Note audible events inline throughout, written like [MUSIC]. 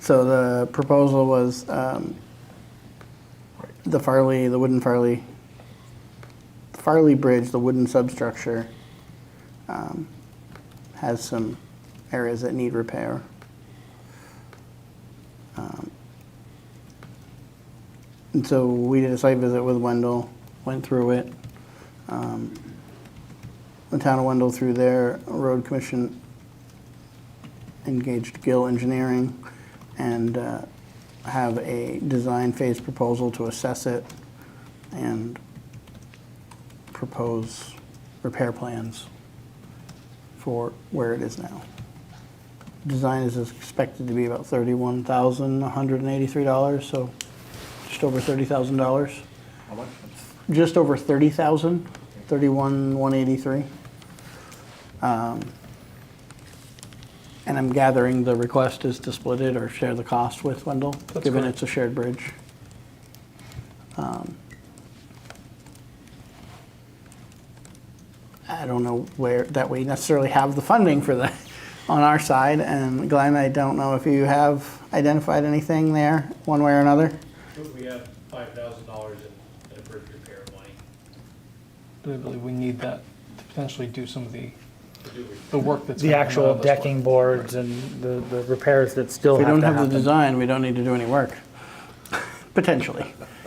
So the proposal was um, the Farley, the wooden Farley, Farley Bridge, the wooden substructure, um, has some areas that need repair. Um, And so we did a site visit with Wendell, went through it. Um, The town of Wendell, through their road commission, engaged Gill Engineering and uh, have a design phase proposal to assess it and propose repair plans for where it is now. Design is expected to be about thirty-one thousand, one hundred and eighty-three dollars, so just over thirty thousand dollars. How much? Just over thirty thousand, thirty-one, one eighty-three. Um, And I'm gathering the request is to split it or share the cost with Wendell, That's given correct. it's a shared bridge. Um, I don't know where, that we necessarily have the funding for that [LAUGHS] on our side, and Glenn, I don't know if you have identified anything there, one way or another? We have five thousand dollars in, in bridge repair money But I believe we need that to potentially do some of the, to do it. the work that's. The been done actual on this one. decking boards and the, the repairs that still If we have don't to have the happen. design, we don't need to do any work, [LAUGHS] potentially.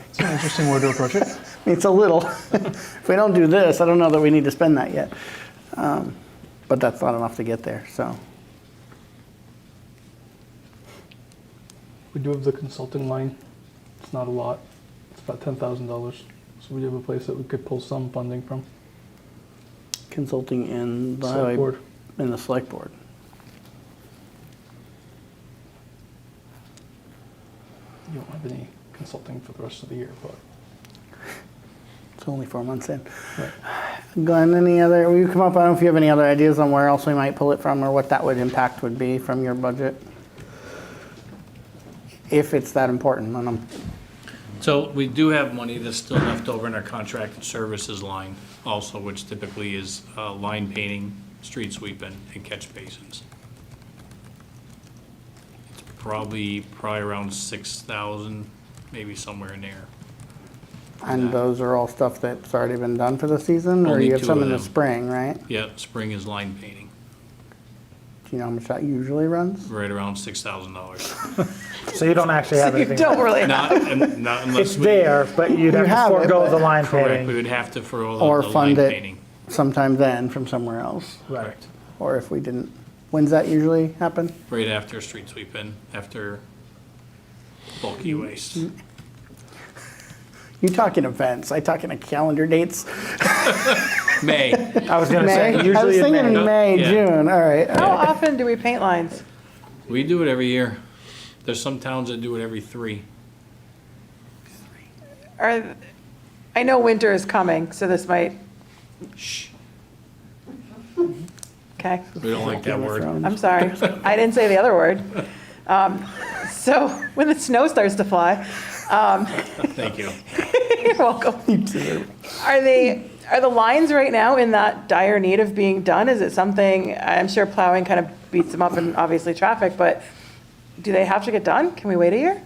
It's an interesting way to approach it. I mean, [LAUGHS] It's a little. [LAUGHS] If we don't do this, I don't know that we need to spend that yet. Um, But that's not enough to get there, so. We do have the consulting line. It's not a lot. It's about ten thousand dollars. So we do have a place that we could pull some funding from. Consulting in the Select highway, board. in the select board. You don't have any consulting for the rest of the year, but It's only four months in. Right. [SIGHS] Glenn, any other, will you come up, I don't know if you have any other ideas on where else we might pull it from or what that would impact would be from your budget? If it's that important, and I'm So we do have money that's still left over in our contracted services line also, which typically is uh, line painting, street sweeping, and catch basins. It's probably, probably around six thousand, maybe somewhere in there. And that. those are all stuff that's already been done for the season, or Only you have two some of in the them. spring, right? Yeah, spring is line painting, Do you know how much that usually runs? right around six thousand dollars. So you don't actually [LAUGHS] have You anything. don't really have. Not, un- not unless we. It's there, but you'd have have to it, forego but- the line Correct, we painting. would have to for all Or the the line fund painting. it sometime then from somewhere else, Right. or if we didn't. When's that usually happen? Right after street sweeping, after bulky waste. You talk in events, I talk in a calendar [LAUGHS] dates. May, I was gonna May? say, I was usually in thinking May. May, Yeah. June, all right. How often do we paint lines? we do it every year. There's some towns that do it every three. Are, I know winter is coming, so this might, Shh, okay, okay, we don't like that Game of word. Thrones. I'm sorry. I didn't say the other word. Um, [LAUGHS] So when the snow starts to fly, um, [LAUGHS] Thank you. you're welcome. Are they, are the lines right now in that dire need of being done? Is it something, I'm sure plowing kind of beats them up and obviously traffic, but do they have to get done? Can we wait a year?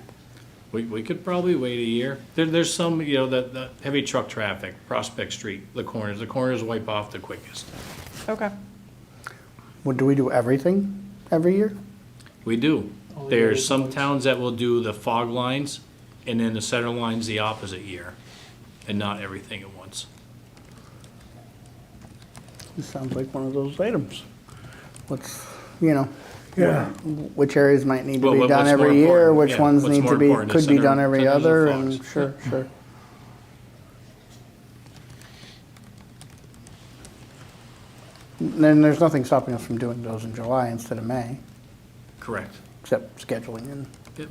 We, we could probably wait a year. There, there's some, you know, that, the heavy truck traffic, Prospect Street, the corners, the corners wipe off the quickest. Okay. Well, do we do everything every year? We do. All the There's other some ones. towns that will do the fog lines and then the center lines the opposite year and not everything at once. This sounds like one of those items. What's, you know, Yeah. which areas might need to Well, be what- done what's more every year, important? which Yeah, ones what's need more to be, important, the could be center- done every centers of the other, and flocks. sure, sure. Then there's nothing stopping us from doing those in July instead of May, Correct. except scheduling and. It-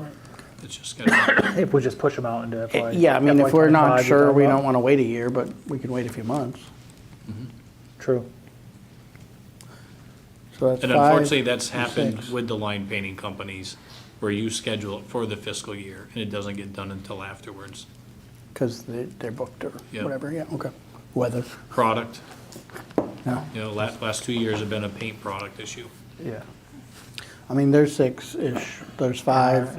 It's just gonna, If we just push them out into FY. Eh, Yeah, I mean, if we're FY25, not you're sure, talking we about- don't want to wait a year, but we can wait a few months. True. So that's and five. unfortunately, that's happened six. with the line painting companies, where you schedule it for the fiscal year, and it doesn't get done until afterwards. Because they're booked or Yeah. whatever, yeah, okay. Weather, Product, no. you know, last, last two years have been a paint product issue. Yeah. I mean, there's six-ish, there's five.